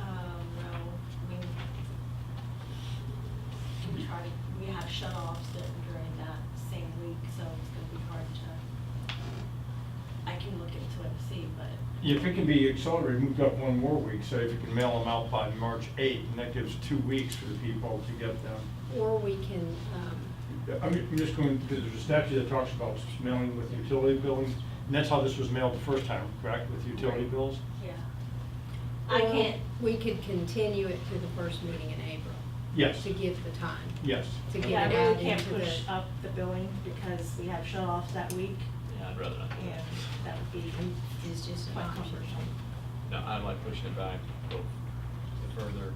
Um, shut-offs that were during that same week, so it's gonna be hard to, I can look into it and see, but. If it can be accelerated, we've got one more week, so if you can mail them out by March 8th, and that gives two weeks for the people to get them. Or we can, um, I'm I'm just going, because there's a statute that talks about mailing with utility bills, and that's how this was mailed the first time, correct, with utility bills? Yeah. I or can't, We could continue it to the first meeting in April. Yes. To give the time. Yes. To get Yeah, it I out really can't into the. push up the billing because we have shut-offs that week, Yeah, I'd rather not do and that. that would be It's just an quite option. cumbersome. No, I like pushing it back a little further.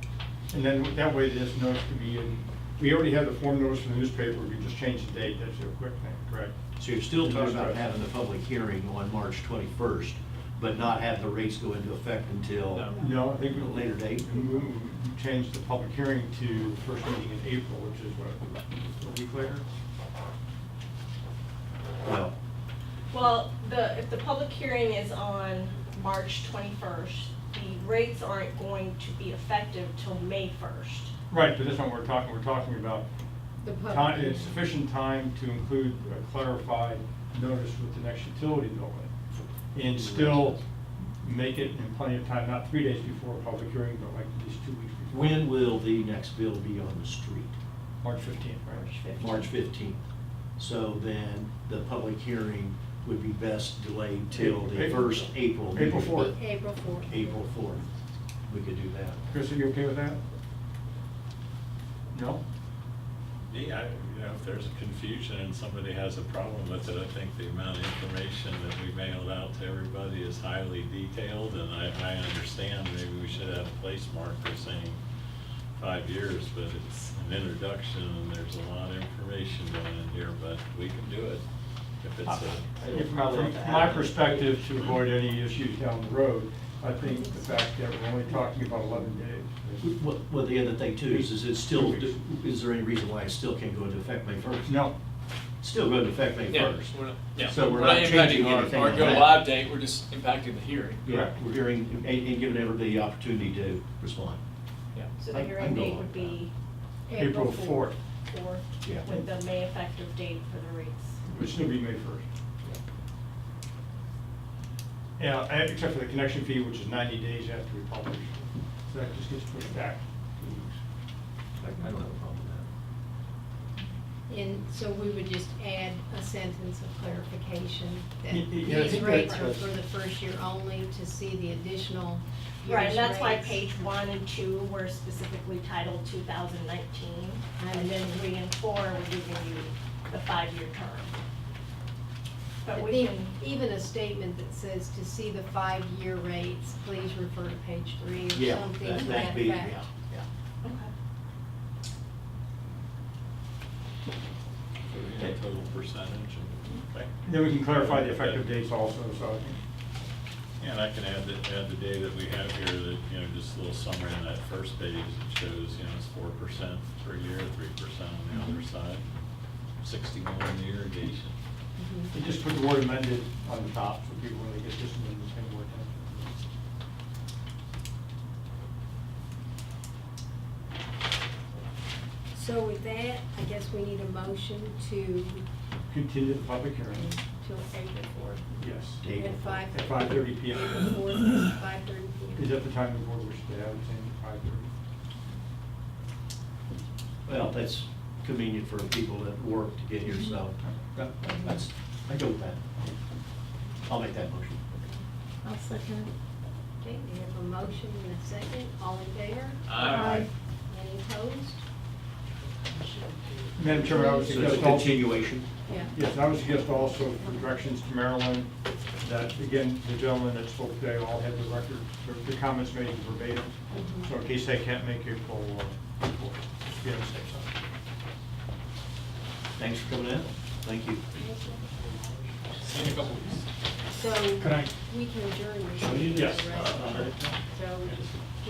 And then that way, this notice can be in, we already have the form notice in the newspaper, we just change the date, that's a quick thing, correct? So you're still talking about having the public hearing on March 21st, but not have the rates go into effect until, No. No, I think. A later date? We we- we changed the public hearing to the first meeting in April, which is what, a week later? well, well, the, if the public hearing is on March twenty-first, the rates aren't going to be effective till May first. Right, but that's not what we're talking, we're talking about The time, public. it's sufficient time to include a clarified notice with the next utility bill. in. And still make it in plenty of time, not three days before a public hearing, but like at least two weeks before. when will the next bill be on the street? March fifteenth, right? March 15th. So then the public hearing would be best delayed till the April- first April meeting. April 4th. Be April fourth. April 4th. We could do that. Chris, are you okay with that? No? Yeah, I- you know, if there's confusion and somebody has a problem with it, I think the amount of information that we mailed out to everybody is highly detailed, and I, I understand maybe we should have a place marker saying five years, but it's an introduction, and there's a lot of information going in here, but we can do it if Ah. it's uh, a. If- Uh, From my perspective, to avoid any issues down the road, I think the fact that we're only talking about eleven days. is- Well, well, the other thing too is, is it still, is there any reason why it still can't go into effect May 1st? No, Still go into effect May Yeah, 1st. we're not- yeah, So we're not changing impacting our- anything Our on go that. live date, we're just impacting the hearing. Yeah, we're hearing, and, and giving everybody the opportunity to respond. Yeah. So I- the I hearing know date like would be April fourth, fourth, Yeah. with the May effective date for the rates. which should be May first. Yeah, and except for the connection fee, which is ninety days after we publish. So that just gets pushed back two weeks. I I don't have a problem with that. And so we would just add a sentence of clarification that Y- y- yeah, I these think that- rates are for the first year only to see the additional Right, and year's that's why rates. page one and two were specifically titled two thousand nineteen, and then three and four were giving you the five-year term. But But we the- can, Even a statement that says to see the five-year rates, please refer to page three or Yeah, something that- to that'd that be- effect. yeah, yeah. a Total percentage, and- okay. Then we can clarify the effective dates also, so I think And I can add the, add the day that we have here, that, you know, just a little summary on that first page, it shows, you know, it's four percent per year, three percent on the other side, sixty-one year irrigation. Mhm. You just put the word amended on the top, so people really get this one, the same word. So with that, I guess we need a motion to, Continue the public hearing, till April fourth. yes. Date. At five. At 5:30 p.m. April fourth, five thirty P M. Is that the time the board wishes to have, it's in five thirty? Well, that's convenient for people that work to get here, so that- that's, I go with that. I'll make that motion. I'll second it. Okay, we have a motion and a second, all in favor? Aye. Any opposed? Madam Chairman, I would So it's a suggest also. continuation. Yeah. Yes, I would suggest also for directions to Maryland, that, again, the gentleman that spoke today all had the record, the- the comments made verbatim. Mhm. So in case they can't make April, uh, report, just be on the safe side. Thanks for coming in. Thank you. See you in a couple weeks. So, Can I- we can adjourn. this Shall we- meeting, yes. right? Uh, So,